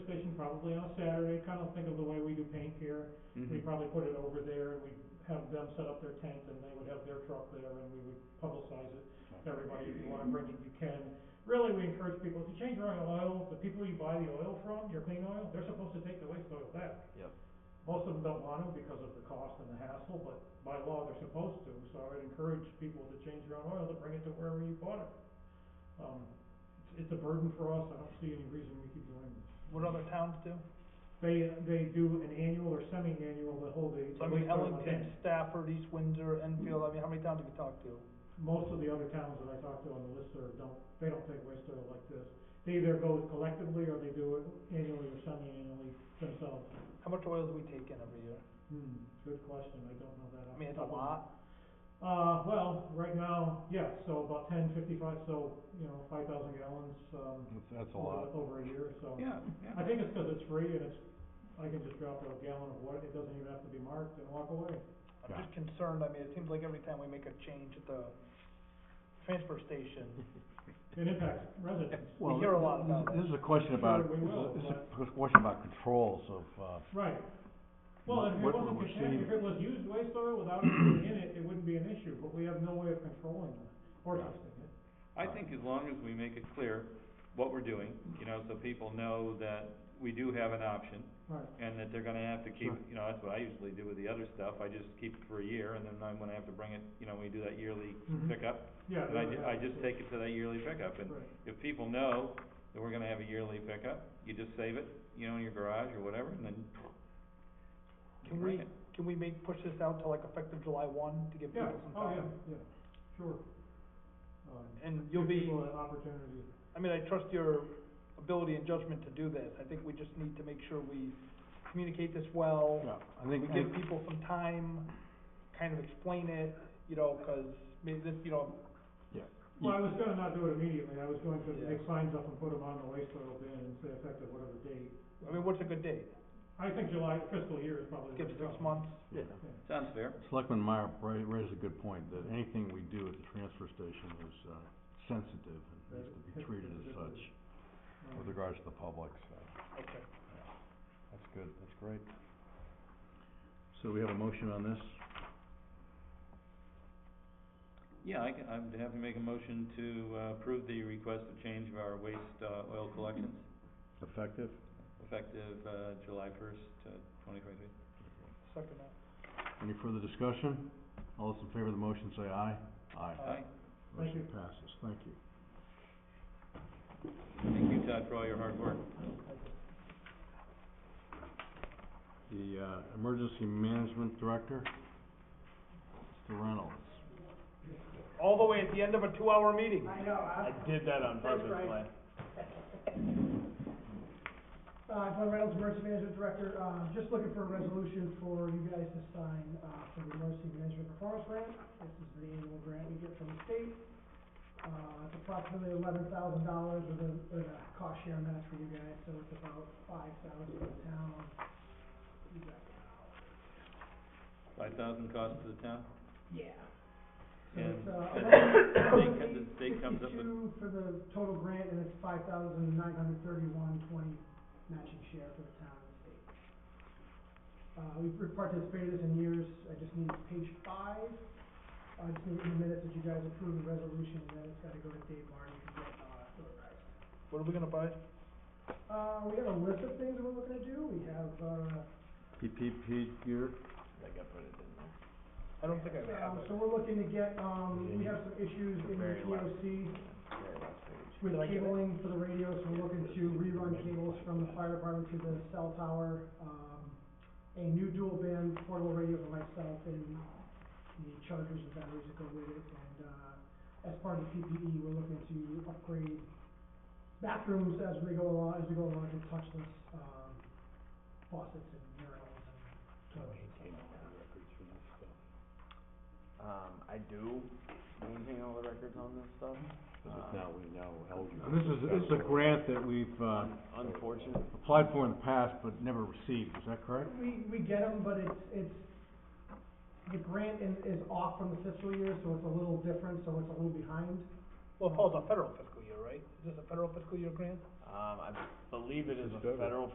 probably on a Saturday, kind of think of the way we do paint here. Mm-hmm. We Mhm. probably put it over there and we have them set up their tent and they would have their truck there and we would publicize it to everybody. If you wanna bring it, you can. Really, we encourage people, if you change your own oil, the people you buy the oil from, your clean oil, they're supposed to take the waste oil back. Yep. Most of them don't want to because of the cost and the hassle, but by law, they're supposed to. So I would encourage people to change their own oil to bring it to wherever you bought it. Um, it's, it's a burden for us. I don't see any reason we keep doing this. What other towns do? They, they do an annual or semi-annual, they hold a. So I mean waste oil Ellington, event. Stafford, East Windsor, Enfield, I mean, how many towns have you talked to? most of the other towns that I talked to on the listserv don't, they don't take waste oil like this. They either go collectively or they do it annually or semi-annually themselves. How much oil do we take in every year? Hmm, good question, I don't know that. I off the mean, it's top a of my- lot. Uh, well, right now, yeah, so about ten fifty-five, so, you know, five thousand gallons, um, That's, that's a over, lot. over a year, so. Yeah, I yeah. think it's 'cause it's free and it's, I can just drop a gallon of water, it doesn't even have to be marked and walk away. I'm just concerned, I mean, it seems like every time we make a change at the transfer station, It impacts residents. We hear a lot about This it. is a question about, Sure, we will, this is a question about controls of, uh, Right. Well, if it What- what wasn't we're contaminated, if it was used waste oil without anything in it, it wouldn't be an issue, but we have no way of controlling that or Yeah. testing it. I think as long as we make it clear what we're doing, you know, so people know that we do have an option Right, and that they're gonna have to keep, Sure. you know, that's what I usually do with the other stuff. I just keep it for a year and then I'm gonna have to bring it, you know, we do that yearly Mhm. pickup. yeah. Mm-hmm. And I, that ju- would I happen, just so- take it to that yearly pickup and Right, if people know that we're gonna have a yearly pickup, you just save it, you know, in your garage or whatever and then you Can bring we, it. can we make, push this out to like effective July one to give yeah, people some oh, time? yeah, yeah, sure. Um, And you'll give be, people an opportunity, I mean, I trust your ability and judgment to do this, I think we just need to make sure we communicate this well. yeah, I We think, I- give people some time, kind of explain it, you know, 'cause maybe this, you know, well, I was gonna not do it immediately, I was going to Yeah. make signs up and put them on the waste oil bin and say effective whatever date. I mean, what's a good date? I think July fiscal year is probably. Give the six go. months? yeah. Sounds fair. Selectman Meyer ra- raised a good point, that anything we do at the transfer station is, uh, sensitive and needs to be treated as such Um, with regards to the public, so, Okay. that's good, that's great. So we have a motion on this? Yeah, I can, I'd have to make a motion to uh, approve the request of change of our waste uh, oil collections Effective? effective uh, July first, twenty twenty-three. Second that. Any further discussion? All those in favor of the motion say aye. Aye. Aye. Thank you. Motion passes, thank you. Thank you, Todd, for all your hard work. The, uh, Emergency Management Director, Mr. Reynolds. All the way at the end of a two-hour meeting. I know, I. did that on Thanks, purpose, Frank. Glenn. Uh, Glenn Reynolds, Emergency Management Director, uh, just looking for a resolution for you guys to sign, uh, for the Emergency Management Performance Grant. This is the annual grant we get from the state. Uh, it's approximately eleven thousand dollars with a, with a cost share match for you guys, so it's about five thousand for the town. You got it. Five thousand cost to the town? Yeah. So And it's, the uh, state comes- the state comes up with- 11,852 for the total grant, and it's five thousand nine hundred thirty-one twenty matching share for the town and state. Uh, we've we've participated in years, I just need page five, I just need in the minutes that you guys approve the resolution, and then it's gotta go to Dave Martin to get, uh, notarized. What are we gonna buy? Uh, we have a list of things that we're looking to do, we have, uh, PPP gear? I think I put it in there. I don't think I have um, it. so we're looking to get, um, we have some issues in the Very last- POC, Very last page. with Did I get it? cabling for the radio, so we're looking to rerun cables from the fire department to the cell tower. Um, a new dual band portable radio for myself and the chargers and batteries that go with it. And, uh, as part of the PPE, we're looking to upgrade bathrooms as we go along, as we go along to touchless, um, faucets and murals and toilets and stuff like that. Um, I do maintain all the records on this stuff. Um, And this is, this is a grant that we've, uh, Unfortunate, applied for in the past but never received, is that correct? We, we get them, but it's, it's, the grant is, is off from the fiscal year, so it's a little different, so it's a little behind. Well, it falls on federal fiscal year, right? Is this a federal fiscal year grant? um, I believe it is This a is federal. federal